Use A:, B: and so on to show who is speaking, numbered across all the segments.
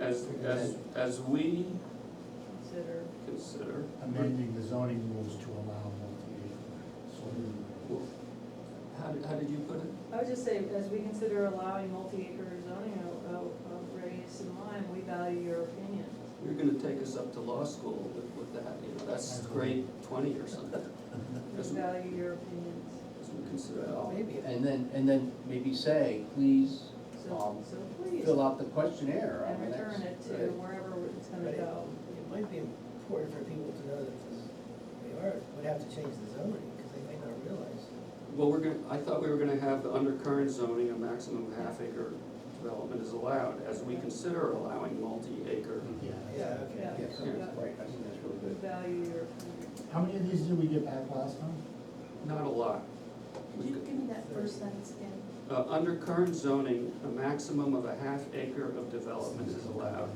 A: as, as, as we
B: consider.
A: consider,
C: amending the zoning rules to allow multi-acre solar.
A: how did, how did you put it?
B: I would just say, as we consider allowing multi-acre zoning of, of of radius and line, we value your opinion.
A: You're gonna take us up to law school with, with that, you know, that's grade twenty or something,
B: We
A: Yes, ma'am.
B: value your opinions.
A: as we consider it all.
D: Maybe, and then, and then maybe say, please
B: So,
D: Um,
B: so please,
D: fill out the questionnaire on
B: and
D: the next.
B: return it to
D: right.
B: wherever it's gonna
E: But it-
B: go.
E: It might be important for people to know that this- they are, would have to change the zoning, because they may not realize.
A: Well, we're gonna, I thought we were gonna have the undercurrent zoning, a maximum half acre development is allowed, as we consider allowing multi-acre.
E: Yeah, okay.
B: Yeah,
D: Yes,
A: Yeah.
D: right, I think that's really
B: we
D: good.
B: value your opinion.
C: How many of these did we get back last time?
A: Not a lot.
F: Could you give me that first sentence again?
A: Uh, under current zoning, a maximum of a half acre of development is allowed.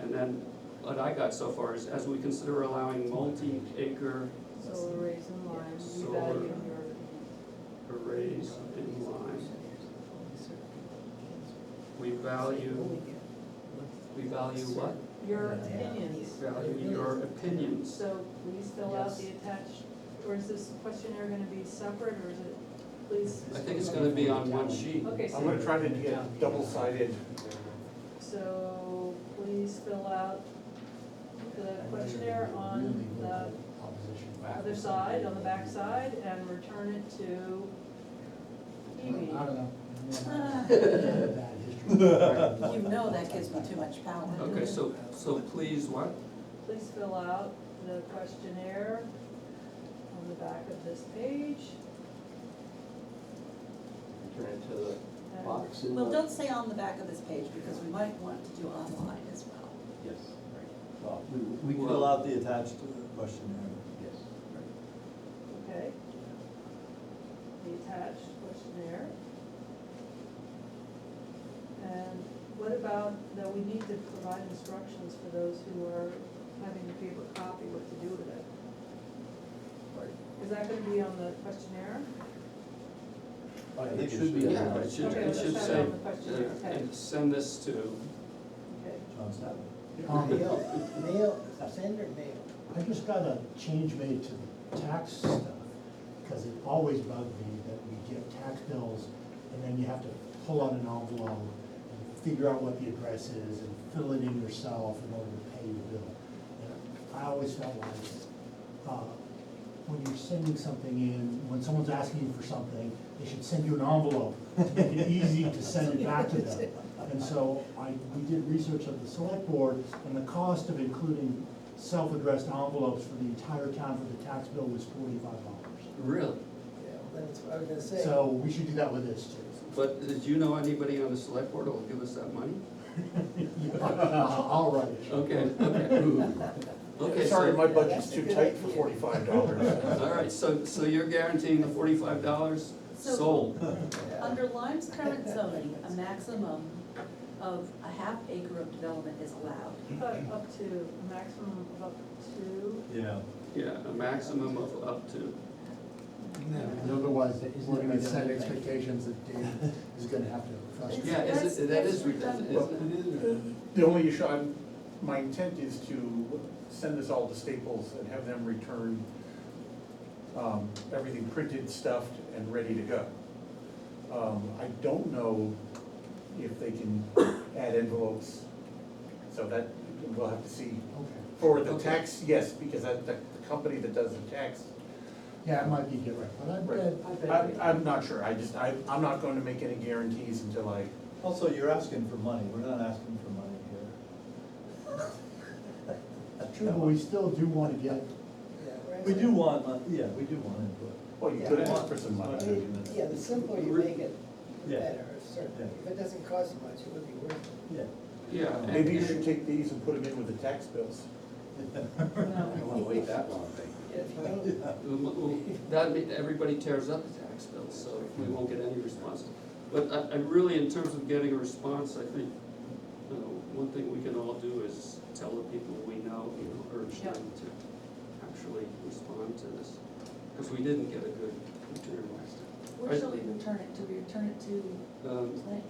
A: And then, what I got so far is, as we consider allowing multi-acre
B: Solar rays and lines, we
A: Solar.
B: value your opinion.
A: arrays in line, we value, we value what?
B: Your
C: Yeah.
B: opinions.
A: Value your opinions.
B: So please fill out
E: Yes.
B: the attached, or is this questionnaire gonna be separate, or is it, please,
A: I think it's gonna be on one sheet.
B: okay, so.
G: I'm gonna try to get double-sided.
B: So please fill out the questionnaire on the other side, on the back side, and return it to
C: I don't
B: Evie.
C: know.
D: Ah.
C: Bad history.
D: You
F: know that gives me too much power.
A: Okay, so, so please, what?
B: Please fill out the questionnaire on the back of this page.
D: Turn it to the
B: and-
D: box in the.
F: Well, don't say on the back of this page, because we might want to do online as well.
D: Yes, right,
H: Well, We we fill out the attached questionnaire.
D: yes.
B: Okay. The attached questionnaire. And what about, that we need to provide instructions for those who are having a paper copy, what to do with it? Is that gonna be on the questionnaire?
D: I
H: It
D: think
H: should be.
D: we
H: on
D: should-
A: Yeah, it should, it should say,
B: Okay, let's have it on the questionnaire,
A: uh,
B: okay.
A: and send this to,
B: Okay.
H: John Stabenow.
C: Um,
E: Mail, mail, send or mail?
C: I just got a change made to the tax stuff, because it always bugged me that we get tax bills, and then you have to pull out an envelope and figure out what the address is and fill it in yourself in order to pay your bill. And I always felt like, uh, when you're sending something in, when someone's asking you for something, they should send you an envelope to make it easy to send it back to them. And so I, we did research of the select board, and the cost of including self-addressed envelopes for the entire town for the tax bill was forty-five dollars.
A: really?
E: Yeah, well, that's what I was gonna say.
C: So we should do that with this too.
A: But did you know anybody on the select board who'll give us that money?
C: Yeah, I'll I'll write it.
A: Okay, okay. Okay,
G: Sorry,
A: so,
G: my budget's too tight for forty-five dollars.
A: all right, so, so you're guaranteeing the forty-five dollars
F: So-
A: sold?
F: Under Lyme's current zoning, a maximum of a half acre of development is allowed.
B: But up to, a maximum of up to,
H: Yeah.
A: Yeah, a maximum of up to.
C: Otherwise, we're gonna set expectations that Dave is gonna have to frustrate.
A: Yeah, is it, that is redundant,
G: Well,
A: isn't it?
G: The only issue, I'm, my intent is to send this all to Staples and have them return um, everything printed, stuffed, and ready to go. Um, I don't know if they can add envelopes, so that, we'll have to see.
C: Okay.
G: For the
A: Okay.
G: tax, yes, because that, that- the company that does the tax,
C: Yeah, it might be different, but I bet,
G: I, I'm not sure, I just, I, I'm not going to make any guarantees until I,
H: Also, you're asking for money, we're not asking for money here.
C: That's true, but we still do wanna get,
E: Yeah, right.
H: We do want, mon- yeah, we do want input.
G: well, you could ask for some money. I mean, that's-
E: Yeah, the simpler you make it, the
H: Yeah.
E: better, certainly. If it doesn't cost much, it would be worth it.
H: Yeah.
A: Yeah. and-
G: Maybe you should take these and put them in with the tax bills.
B: no.
D: I wanna wait that long, I think.
E: Yeah, if you don't,
A: Well, well, That, ma- everybody tears up the tax bill, so we won't get any response. But I, I really, in terms of getting a response, I think, you know, one thing we can all do is tell the people we know, you know, urge them to actually respond to this. Because we didn't get a good return last time.
F: Where shall we return it? Do we return it to
A: Um,
F: plan-